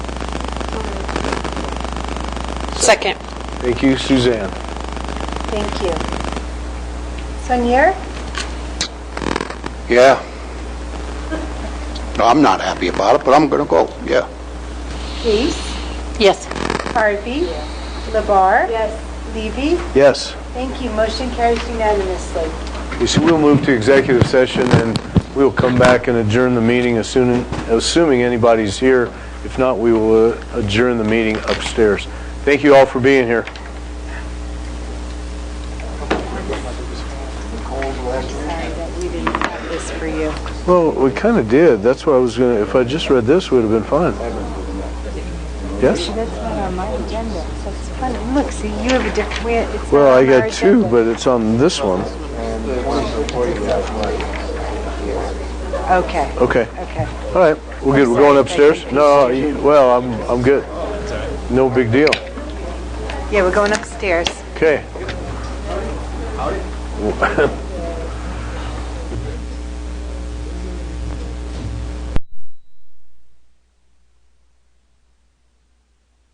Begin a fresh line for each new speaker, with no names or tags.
Second.
Thank you, Suzanne.
Thank you. Sonier?
Yeah. No, I'm not happy about it, but I'm going to go, yeah.
Case?
Yes.
Harvey? Labar? Yes. Levy?
Yes.
Thank you. Motion carries unanimously.
You see, we'll move to executive session, and we'll come back and adjourn the meeting as soon- assuming anybody's here. If not, we will uh, adjourn the meeting upstairs. Thank you all for being here.
This for you.
Well, we kind of did. That's what I was going to, if I just read this, it would have been fine. Yes?
That's not on my agenda, so it's funny. Look, see, you have a different, we- it's not
Well, I
on our
got two,
agenda.
but it's on this one.
Okay,
Okay.
okay.
All right, we're good. We're going upstairs? No, you- well, I'm, I'm good. No big deal.
Yeah, we're going upstairs.
Okay.